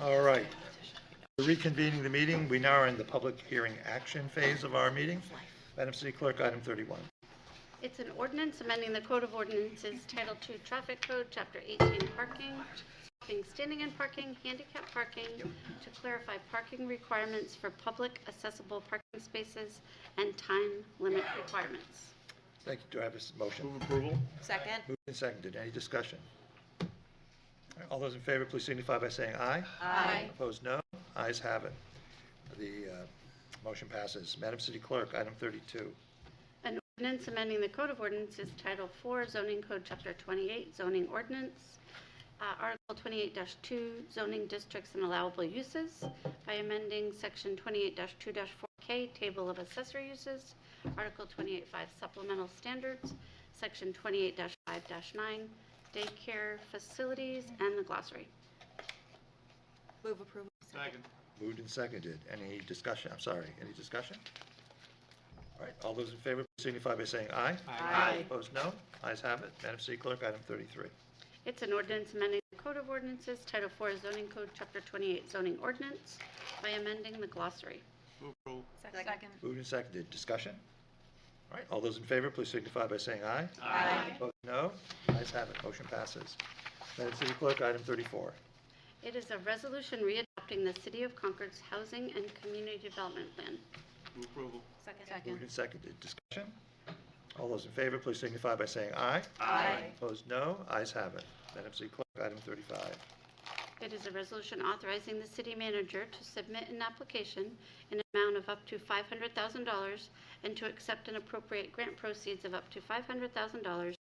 All right. Reconvening the meeting, we now are in the public hearing action phase of our meeting. Madam City Clerk, item 31. It's an ordinance amending the Code of Ordinances Title II Traffic Code, Chapter 18 Parking, Stopping, Standing and Parking, Handicap Parking, to clarify parking requirements for public accessible parking spaces and time limit requirements. Thank you. Do I have a s- motion? Move approval? Second. Moved and seconded. Any discussion? All those in favor, please signify by saying aye. Aye. Opposed, no. Ayes have it. The uh, motion passes. Madam City Clerk, item 32. An ordinance amending the Code of Ordinances Title IV Zoning Code, Chapter 28 Zoning Ordinance, uh, Article 28-2 Zoning Districts and Allowable Uses by amending Section 28-2-4K Table of Accessory Uses, Article 28-5 Supplemental Standards, Section 28-5-9 Daycare Facilities, and the glossary. Move approval. Second. Moved and seconded. Any discussion? I'm sorry, any discussion? All right, all those in favor please signify by saying aye. Aye. Opposed, no. Ayes have it. Madam City Clerk, item 33. It's an ordinance amending the Code of Ordinances Title IV Zoning Code, Chapter 28 Zoning Ordinance by amending the glossary. Move approval? Second. Moved and seconded. Discussion? All right, all those in favor, please signify by saying aye. Aye. Opposed, no. Ayes have it. Motion passes. Madam City Clerk, item 34. It is a resolution readopting the City of Concord's Housing and Community Development Plan. Move approval? Moved and seconded. Discussion? All those in favor, please signify by saying aye. Aye. Opposed, no. Ayes have it. Madam City Clerk, item 35. It is a resolution authorizing the city manager to submit an application in an amount of up to $500,000 and to accept and appropriate grant proceeds of up to $500,000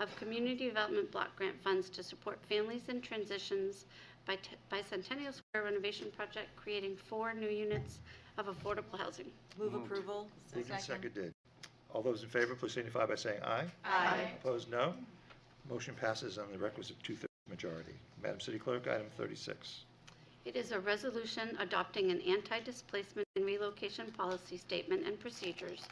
of community development block grant funds to support families in transitions by T- by Centennial Square renovation project, creating four new units of affordable housing. Move approval. Moved and seconded. All those in favor, please signify by saying aye. Aye. Opposed, no. Motion passes on the requisite two-thirds majority. Madam City Clerk, item 36. It is a resolution adopting an anti-displacement and relocation policy statement and procedures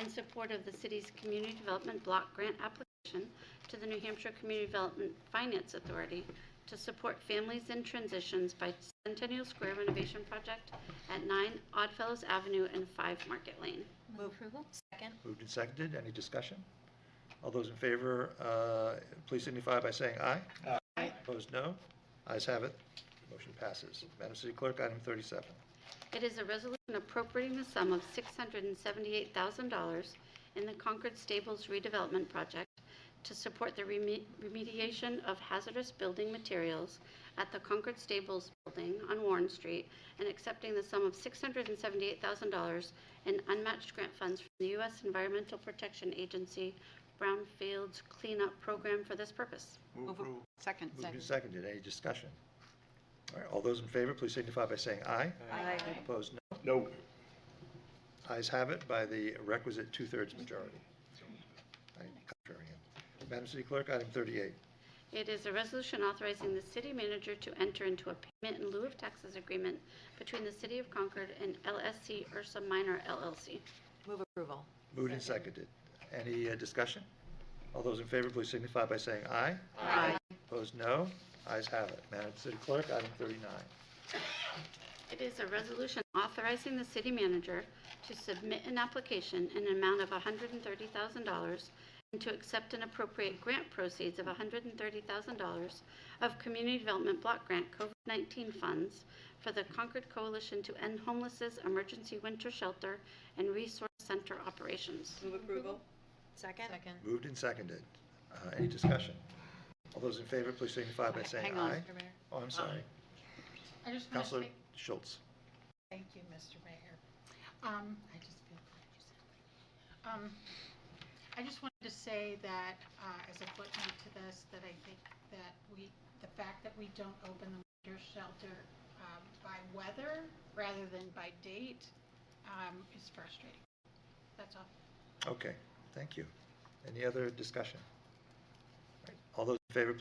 in support of the city's community development block grant application to the New Hampshire Community Development Finance Authority to support families in transitions by Centennial Square renovation project at 9 Oddfellows Avenue and 5 Market Lane. Move approval. Second. Moved and seconded. Any discussion? All those in favor, uh, please signify by saying aye. Aye. Opposed, no. Ayes have it. Motion passes. Madam City Clerk, item 37. It is a resolution appropriating the sum of $678,000 in the Concord Stables redevelopment project to support the reme- remediation of hazardous building materials at the Concord Stables building on Warren Street and accepting the sum of $678,000 in unmatched grant funds from the U.S. Environmental Protection Agency Brownfields Cleanup Program for this purpose. Move approval? Second. Moved and seconded. Any discussion? All right, all those in favor, please signify by saying aye. Aye. Opposed, no. No. Ayes have it by the requisite two-thirds majority. Aye, Contrarian. Madam City Clerk, item 38. It is a resolution authorizing the city manager to enter into a payment in lieu of taxes agreement between the City of Concord and LSC Ursa Minor LLC. Move approval. Moved and seconded. Any uh, discussion? All those in favor, please signify by saying aye. Aye. Opposed, no. Ayes have it. Madam City Clerk, item 39. It is a resolution authorizing the city manager to submit an application in an amount of $130,000 and to accept and appropriate grant proceeds of $130,000 of Community Development Block Grant COVID-19 funds for the Concord Coalition to End Homelessness Emergency Winter Shelter and Resource Center operations. Move approval. Second. Second. Moved and seconded. Uh, Any discussion? All those in favor, please signify by saying Hang on, aye. Mr. Mayor. Oh, I'm sorry. I just want to Counselor speak, Schultz. thank you, Mr. Mayor. Um, I just feel glad you said that. Um, I just wanted to say that, uh, as a footnote to this, that I think that we, the fact that we don't open the winter shelter, um, by weather rather than by date, um, is frustrating. That's all. Okay, thank you. Any other discussion? All right, All those in favor, please